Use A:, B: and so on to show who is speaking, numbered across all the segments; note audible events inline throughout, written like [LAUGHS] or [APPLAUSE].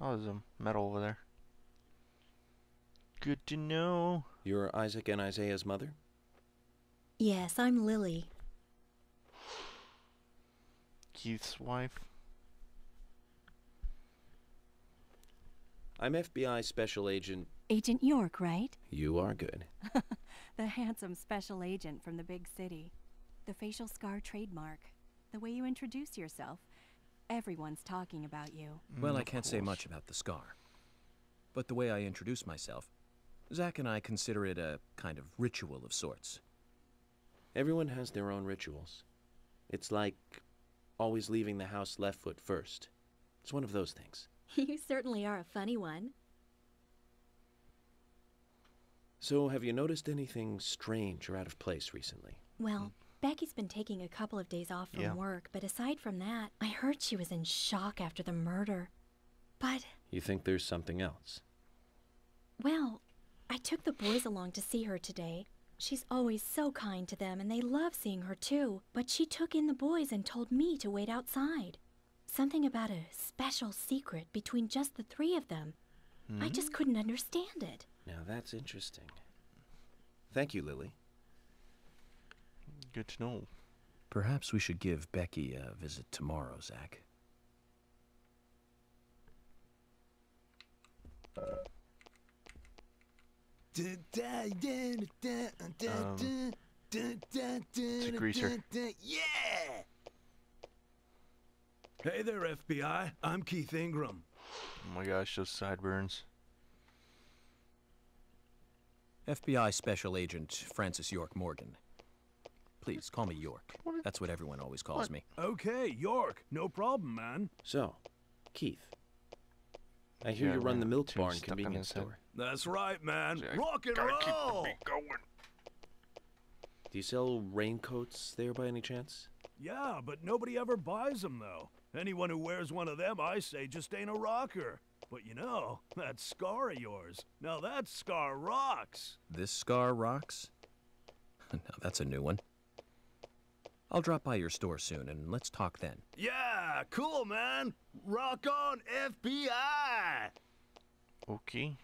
A: Oh, there's a medal over there. Good to know.
B: You're Isaac and Isaiah's mother?
C: Yes, I'm Lily.
A: Keith's wife.
B: I'm FBI Special Agent.
D: Agent York, right?
B: You are good.
D: The handsome special agent from the big city. The facial scar trademark. The way you introduce yourself. Everyone's talking about you.
E: Well,
A: Mm,
E: I
A: of
E: can't say
A: course.
E: much about the scar. But the way I introduce myself, Zack and I consider it a kind of ritual of sorts.
B: Everyone has their own rituals. It's like always leaving the house left foot first. It's one of those things.
C: [LAUGHS] You certainly are a funny one.
B: So, have you noticed anything strange or out of place recently?
C: Well, Becky's been taking a couple of days off from
A: Yeah.
C: work, but aside from that, I heard she was in shock after the murder. But,
B: You think there's something else?
C: well, I took the boys along to see her today. She's always so kind to them, and they love seeing her too. But she took in the boys and told me to wait outside. Something about a special secret between just the three of them.
A: Hmm?
C: I just couldn't understand it.
B: Now, that's interesting. Thank you, Lily.
A: Good to know.
E: Perhaps we should give Becky a visit tomorrow, Zack.
A: Um,
F: It's
A: a greaser.
F: Yeah! Hey there, FBI. I'm Keith Ingram.
A: Oh my gosh, those sideburns.
E: FBI Special Agent Francis York Morgan. Please call me York. That's what everyone always calls me.
F: Okay, York. No problem, man.
B: So, Keith. I hear
A: Yeah,
B: you run
A: we're
B: the milk
A: too
B: barn
A: stuck on
B: convenience
A: this head.
B: store.
F: That's right, man.
A: See, I
F: Rock and
A: gotta keep the
F: roll!
A: beat going.
B: Do you sell raincoats there by any chance?
F: Yeah, but nobody ever buys them, though. Anyone who wears one of them, I say, just ain't a rocker. But you know, that scar of yours. Now that scar rocks.
E: This scar rocks? [LAUGHS] now that's a new one. I'll drop by your store soon and let's talk then.
F: Yeah, cool, man. Rock on, FBI!
A: Okay.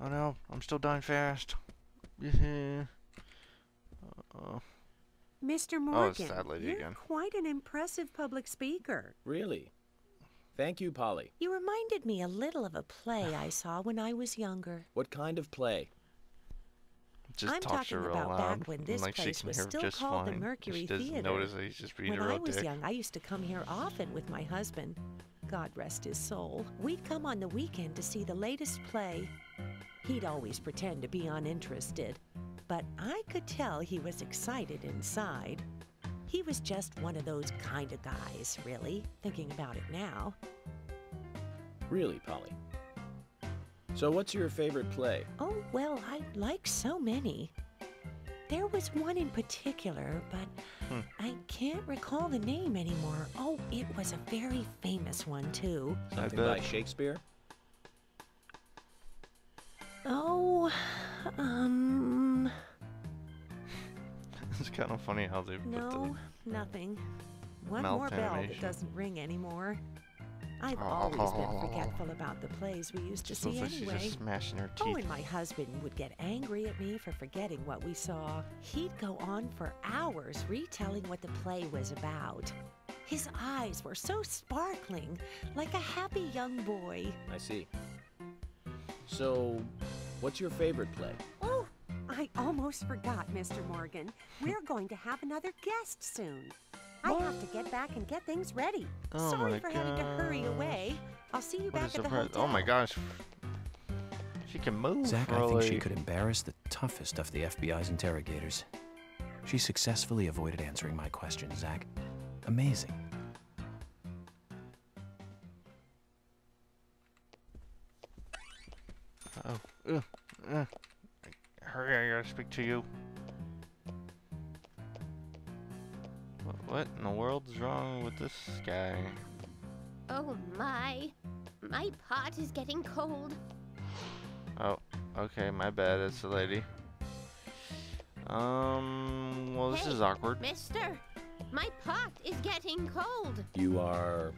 A: Oh no, I'm still dying fast. [LAUGHS] Oh, Yeah. Uh,
G: Mr.
A: Oh, it's
G: Morgan,
A: that lady
G: you're
A: again.
G: quite an impressive public speaker.
B: Really? Thank you, Polly.
G: You reminded me a little of a play I saw when I was younger.
B: What kind of play?
A: just
G: I'm
A: talks to
G: talking
A: her real
G: about
A: loud.
G: back when
A: and,
G: this
A: like she
G: place
A: can
G: was
A: hear
G: still
A: just
G: called the
A: fine.
G: Mercury
A: she doesn't
G: Theater.
A: notice that he's just reading
G: When
A: her
G: I
A: real
G: was
A: dick.
G: young, I used to come here often with my husband. God rest his soul. We'd come on the weekend to see the latest play. He'd always pretend to be uninterested, but I could tell he was excited inside. He was just one of those kind of guys, really, thinking about it now.
B: Really, Polly. So, what's your favorite play?
G: Oh, well, I like so many. There was one in particular, but
A: Hmm.
G: I can't recall the name anymore. Oh, it was a very famous one, too.
B: Something
A: bet.
B: by Shakespeare?
G: Oh, um,
A: [LAUGHS] it's kind of funny how they put
G: no,
A: the.
G: nothing. One more bell that
A: Malformation.
G: doesn't ring anymore. I've
A: Oh,
G: always been forgetful about the plays we used to
A: Just looks
G: see
A: like she's
G: anyway.
A: just smashing her
G: Oh,
A: teeth.
G: and my husband would get angry at me for forgetting what we saw. He'd go on for hours retelling what the play was about. His eyes were so sparkling, like a happy young boy.
B: I see. So, what's your favorite play?
H: Oh, I almost forgot, Mr. Morgan. We're going to have another guest soon. I have to get back and get things ready.
A: Oh
G: Sorry
A: my
G: for having to hurry
A: gosh.
G: away. I'll see you
A: What
G: back
A: is
G: at
A: the
G: the
A: pro-
G: hotel.
A: Oh my gosh. She can move.
E: Zach, I think she
A: really.
E: could embarrass the toughest of the FBI's interrogators. She successfully avoided answering my question, Zach. Amazing.
A: Oh. Ugh. Ugh. Hurry, I gotta speak to you. Wha- What in the world's wrong with this guy?
I: Oh my. My pot is getting cold.
A: Oh, okay, my bad, it's the lady. Um, well, this
I: Hey.
A: is awkward.
I: Mister, my pot is getting cold.
B: You are